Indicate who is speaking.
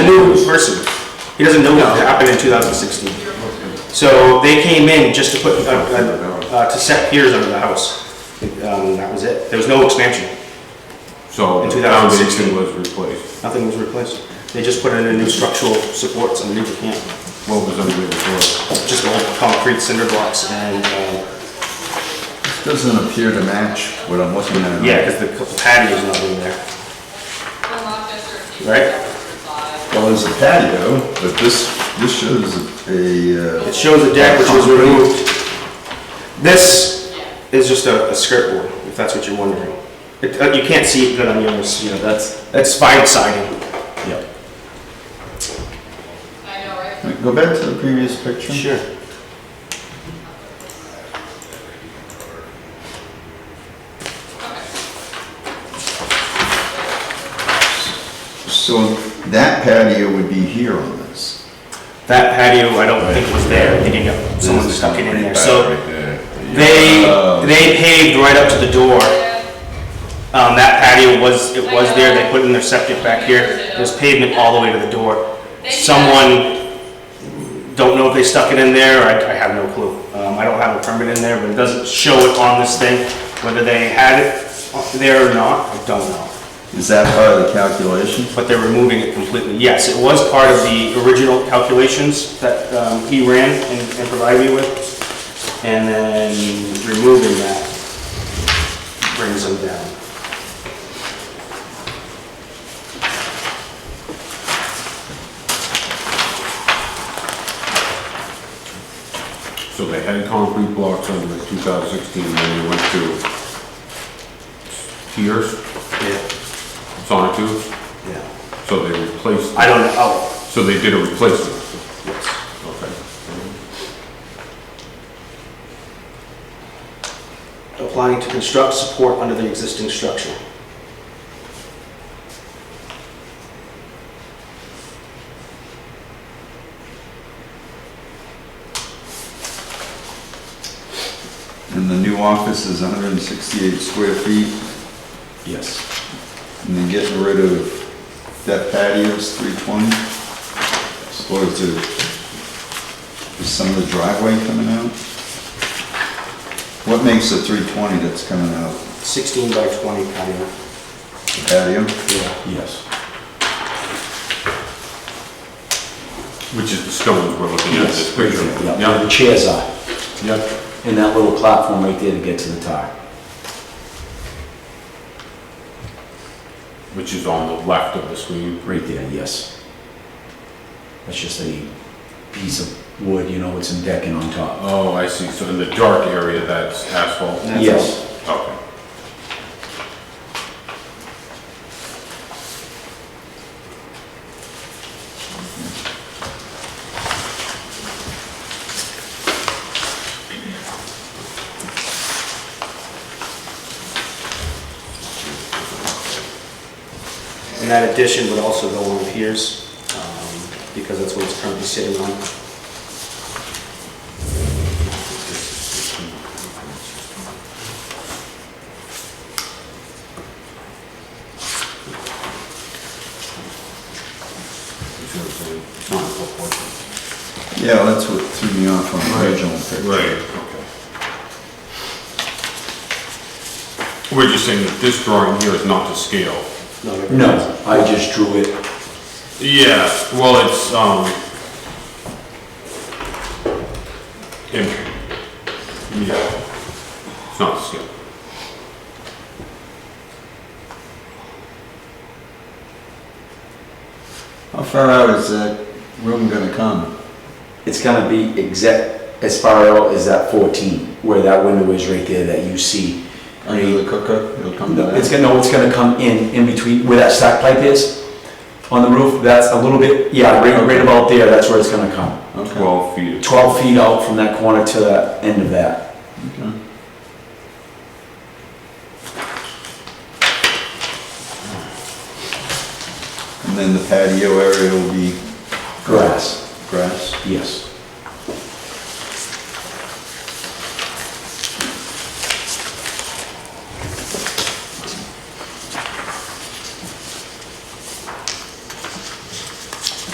Speaker 1: He doesn't know what happened in 2016. So they came in just to put, uh, uh, uh, to set piers under the house. Um, That was it. There was no expansion.
Speaker 2: So
Speaker 1: In
Speaker 2: the
Speaker 1: 2016.
Speaker 2: foundation was replaced.
Speaker 1: Nothing was replaced. They just put in a new structural supports underneath the camp.
Speaker 2: What was under before?
Speaker 1: Just old concrete cinder blocks and, uh,
Speaker 3: Doesn't appear to match what I'm looking at.
Speaker 1: yeah, because the patio's not in there.
Speaker 4: Right?
Speaker 3: Well, there's a patio, but this, this shows a, uh,
Speaker 1: It shows the deck which was removed. This is just a, a skirt board, if that's what you're wondering. It, uh, you can't see it good on yours, you know, that's, that's fine siding. Yeah.
Speaker 4: I know, right?
Speaker 3: go back to the previous picture.
Speaker 1: Sure.
Speaker 3: So that patio would be here on this.
Speaker 1: That patio, I don't think was there, I think it got, someone
Speaker 3: There's a
Speaker 1: stuck it in
Speaker 3: concrete
Speaker 1: there,
Speaker 3: pad
Speaker 1: so.
Speaker 2: Right there. um,
Speaker 1: They, they paved right up to the door. Um, that patio was, it was there, they put in their septic back here. There's pavement all the way to the door. Someone, don't know if they stuck it in there, I, I have no clue. Um, I don't have a permit in there, but it doesn't show it on this thing, whether they had it there or not, I don't know.
Speaker 3: Is that part of the calculation?
Speaker 1: But they're removing it completely. Yes, it was part of the original calculations that, um, he ran and and provided me with. And then removing that brings them down.
Speaker 2: So they had concrete blocks under the 2016, then they went to tiers,
Speaker 1: Yeah,
Speaker 2: sonotubes,
Speaker 1: yeah.
Speaker 2: so they replaced,
Speaker 1: I don't know, oh,
Speaker 2: so they did a replacement.
Speaker 1: yes.
Speaker 2: Okay.
Speaker 1: Applying to construct support under the existing structure.
Speaker 3: And the new office is 168 square feet,
Speaker 1: Yes.
Speaker 3: and then getting rid of that patio is 320? Or is there, is some of the driveway coming out? What makes the 320 that's coming out?
Speaker 1: 16 by 20 kind of,
Speaker 3: The Patio?
Speaker 1: yeah.
Speaker 2: Yes. Which is the stones we're looking at in this picture.
Speaker 5: Yeah, where the chairs are,
Speaker 2: yeah.
Speaker 5: and that little platform right there to get to the tar.
Speaker 2: Which is on the left of the screen.
Speaker 5: Right there, yes. That's just a piece of wood, you know, with some decking on top.
Speaker 2: Oh, I see, so in the dark area, that's asphalt?
Speaker 1: That's
Speaker 5: Yes,
Speaker 2: Okay.
Speaker 1: And that addition would also go on piers, um, because that's what it's currently sitting on.
Speaker 2: You see what I'm saying?
Speaker 3: Yeah, that's what threw me off on the original picture.
Speaker 2: Right, okay. We're just saying that this drawing here is not to scale.
Speaker 5: no, I just drew it,
Speaker 2: Yeah, well, it's, um... Yeah, it's not to scale.
Speaker 3: How far out is that room gonna come?
Speaker 5: it's gonna be exact, as far out as that 14, where that window is right there that you see.
Speaker 3: Under the cooker, it'll come to
Speaker 5: No, It's
Speaker 3: that?
Speaker 5: gonna, no, it's gonna come in, in between, where that stack pipe is, on the roof, that's a little bit, yeah, right, right about there, that's where it's gonna come.
Speaker 3: Okay.
Speaker 2: Twelve feet.
Speaker 5: 12 feet out from that corner to the end of that.
Speaker 3: Okay. And then the patio area will be
Speaker 5: Grass.
Speaker 3: grass?
Speaker 5: Yes.